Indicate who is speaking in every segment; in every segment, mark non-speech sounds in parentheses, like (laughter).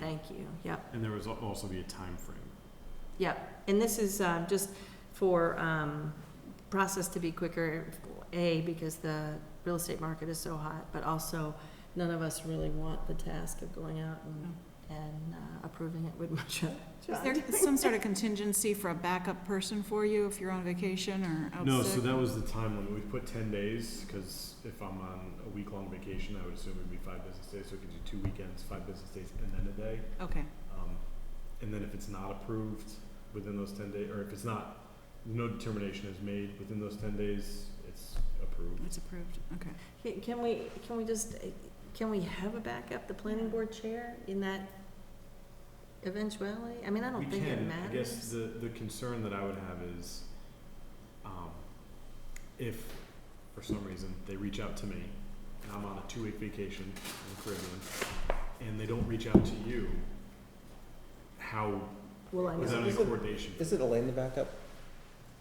Speaker 1: Thank you, yep,
Speaker 2: And there was al- also be a time frame.
Speaker 1: yep. And this is uh, just for um, process to be quicker, A, because the real estate market is so hot, but also none of us really want the task of going out and- and uh, approving it would (laughs) much.
Speaker 3: Is (laughs) there some sort of contingency for a backup person for you if you're on vacation
Speaker 4: Oh,
Speaker 3: or out
Speaker 2: No, so
Speaker 3: sick?
Speaker 2: that was the time limit. We put ten days, because if I'm on a week-long vacation, I would assume it'd be five business days, so it could do two weekends, five business days, and then a day.
Speaker 3: Okay,
Speaker 2: Um, and then if it's not approved within those ten days, or if it's not, no determination is made within those ten days, it's approved.
Speaker 3: it's approved, okay.
Speaker 1: (laughs) Can- Can we, can we just, uh, can we have a backup, the planning board chair, in that eventuality? I mean, I don't
Speaker 2: We
Speaker 1: think it
Speaker 2: can.
Speaker 1: matters.
Speaker 2: I guess the, the concern that I would have is, um, if, for some reason, they reach out to me, and I'm on a two-week vacation in the Caribbean, and they don't reach out to you, how,
Speaker 1: Well, I
Speaker 2: is that
Speaker 1: know.
Speaker 2: any
Speaker 5: Is it-
Speaker 2: coordination?
Speaker 5: Is it Elaine the backup?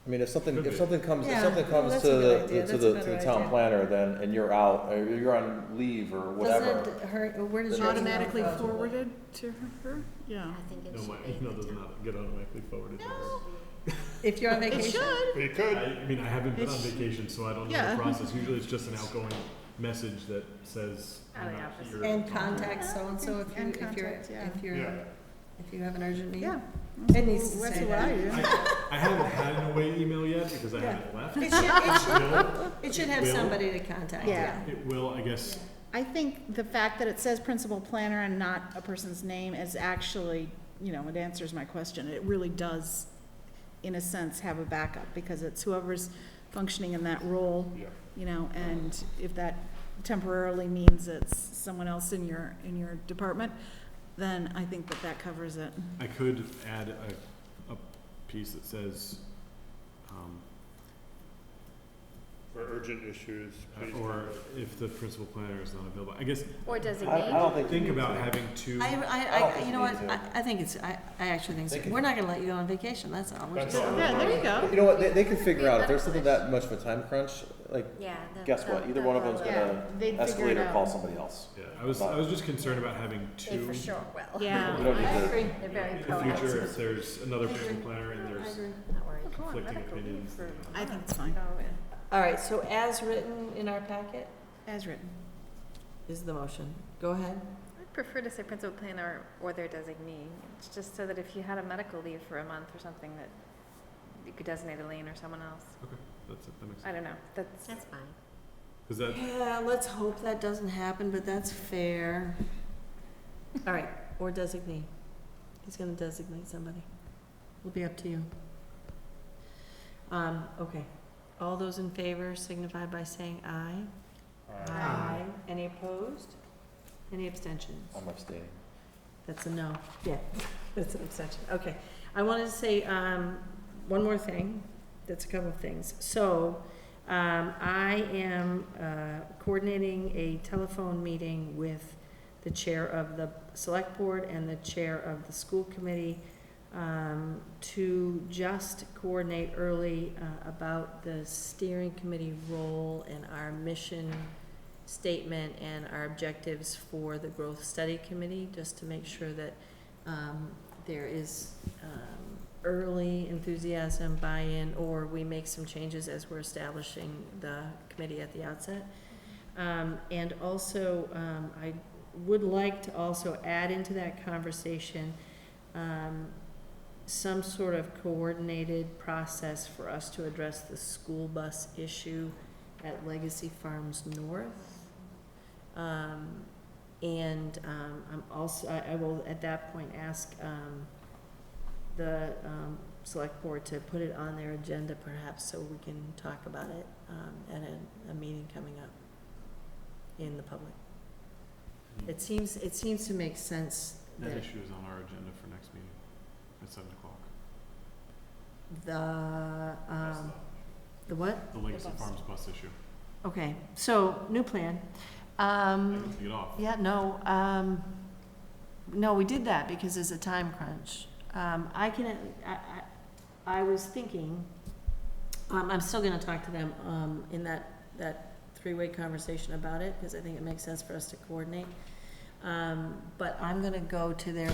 Speaker 5: I mean, if something,
Speaker 2: Could be.
Speaker 5: if something comes,
Speaker 1: Yeah,
Speaker 5: if something
Speaker 1: no,
Speaker 5: comes
Speaker 1: that's
Speaker 5: to
Speaker 1: a good
Speaker 5: the,
Speaker 1: idea.
Speaker 5: to
Speaker 1: That's a
Speaker 5: the, to the
Speaker 1: better
Speaker 5: town
Speaker 1: idea.
Speaker 5: planner then, and you're out, or you're on leave or
Speaker 1: Doesn't
Speaker 5: whatever,
Speaker 1: it hurt, where does
Speaker 5: It's
Speaker 1: your
Speaker 3: Automatically
Speaker 1: email go?
Speaker 3: forwarded to her, yeah.
Speaker 2: (laughs)
Speaker 4: think
Speaker 2: No, my email does not get automatically forwarded to her.
Speaker 1: If you're on vacation?
Speaker 2: It could. I I mean, I haven't been on
Speaker 3: It's-
Speaker 2: vacation, so I don't know
Speaker 3: Yeah.
Speaker 2: the process. Usually it's just an outgoing message that says, I'm
Speaker 4: Probably
Speaker 2: not
Speaker 4: opposite.
Speaker 2: here.
Speaker 1: And contact so-and-so if you,
Speaker 3: And
Speaker 1: if you're,
Speaker 3: contact, yeah.
Speaker 1: if you're,
Speaker 2: Yeah.
Speaker 1: if you have an urgent need.
Speaker 3: Yeah.
Speaker 1: It needs to
Speaker 3: That's
Speaker 1: say
Speaker 3: what I do.
Speaker 1: that.
Speaker 2: I, I haven't had an away email yet because I
Speaker 3: Yeah.
Speaker 2: haven't left.
Speaker 1: It should, it should,
Speaker 2: No,
Speaker 1: it should have
Speaker 2: Will?
Speaker 1: somebody to contact, yeah.
Speaker 4: Yeah.
Speaker 2: It will, I guess,
Speaker 4: I think the fact that it says principal planner and not a person's name is actually, you know, it answers my question. It really does, in a sense, have a backup, because it's whoever's functioning in that role,
Speaker 2: Yeah.
Speaker 4: you know, and if that temporarily means it's someone else in your, in your department, then I think that that covers it.
Speaker 2: I could add a, a piece that says, um,
Speaker 6: For urgent issues, please.
Speaker 2: or
Speaker 6: contact-
Speaker 2: if the principal planner is not available. I guess,
Speaker 7: Or
Speaker 5: I, I
Speaker 7: designate.
Speaker 5: don't think.
Speaker 2: think
Speaker 5: you need
Speaker 2: about
Speaker 5: to.
Speaker 2: having two,
Speaker 1: I,
Speaker 5: I
Speaker 1: I,
Speaker 5: don't
Speaker 1: I,
Speaker 5: think
Speaker 1: you know
Speaker 5: we
Speaker 1: what,
Speaker 5: need
Speaker 1: I, I think it's, I, I actually think,
Speaker 5: They
Speaker 1: so.
Speaker 5: can-
Speaker 1: we're not gonna let you go on vacation, that's all. We're
Speaker 6: That's
Speaker 1: just-
Speaker 6: all.
Speaker 4: Yeah, there you go.
Speaker 5: You know what, they, they can
Speaker 7: They
Speaker 5: figure out, if there's something
Speaker 7: publish.
Speaker 5: that much of a time crunch, like,
Speaker 7: Yeah. the-
Speaker 5: guess
Speaker 7: the-
Speaker 5: what, either
Speaker 7: the
Speaker 5: one of them's
Speaker 7: follow-up.
Speaker 4: Yeah,
Speaker 5: gonna
Speaker 4: they'd figure
Speaker 5: escalate
Speaker 4: it
Speaker 5: or call
Speaker 4: out.
Speaker 5: somebody else.
Speaker 2: yeah, I was, I was just concerned about having
Speaker 7: They
Speaker 2: two.
Speaker 7: for sure will.
Speaker 4: Yeah.
Speaker 5: We don't need
Speaker 7: I
Speaker 5: to-
Speaker 7: agree. (laughs) They're
Speaker 2: In
Speaker 7: very
Speaker 2: the future,
Speaker 7: proactive.
Speaker 2: if there's another principal planner and there's
Speaker 7: Not worried.
Speaker 2: conflicting opinions. you know.
Speaker 4: I think it's fine,
Speaker 1: All right, so as written in our packet
Speaker 4: as written.
Speaker 1: is the motion. Go ahead.
Speaker 7: I'd prefer to say principal planner or their designee. It's just so that if you had a medical leave for a month or something, that you could designate Elaine or someone else.
Speaker 2: That's it, that makes
Speaker 7: I
Speaker 2: sense.
Speaker 7: don't know, that's.
Speaker 4: That's fine.
Speaker 2: Cause that,
Speaker 1: Yeah, let's hope that doesn't happen, but that's fair. All right, or designate. He's gonna designate somebody. It'll be up to you. Um, okay. All those in favor signify by saying aye.
Speaker 2: Aye.
Speaker 1: Any opposed? Any abstentions?
Speaker 5: I'm abstaining.
Speaker 1: That's a no. Yeah, that's an abstention. Okay. I wanted to say, um, one more thing. That's a couple of things. So, um, I am, uh, coordinating a telephone meeting with the chair of the select board and the chair of the school committee, um, to just coordinate early, uh, about the steering committee role and our mission statement and our objectives for the growth study committee, just to make sure that um, there is um, early enthusiasm, buy-in, or we make some changes as we're establishing the committee at the outset. Um, And also, um, I would like to also add into that conversation um, some sort of coordinated process for us to address the school bus issue at Legacy Farms North. Um, and, um, I'm also, I, I will at that point ask, um, the, um, select board to put it on their agenda perhaps so we can talk about it, um, at a, a meeting coming up in the public. It seems, it seems to make sense
Speaker 2: that
Speaker 1: that
Speaker 2: issue is on our agenda for next meeting at seven o'clock.
Speaker 1: the,
Speaker 2: That's
Speaker 1: um, the what?
Speaker 2: The Legacy
Speaker 4: bus.
Speaker 2: Farms bus issue.
Speaker 1: Okay, so, new plan.
Speaker 2: I
Speaker 1: Um,
Speaker 2: can take it off.
Speaker 1: Yeah, no, um, no, we did that because it's a time crunch. Um, I can, I, I, I was thinking, um, I'm still gonna talk to them, um, in that, that three-way conversation about it, because I think it makes sense for us to coordinate. Um, But I'm gonna go to their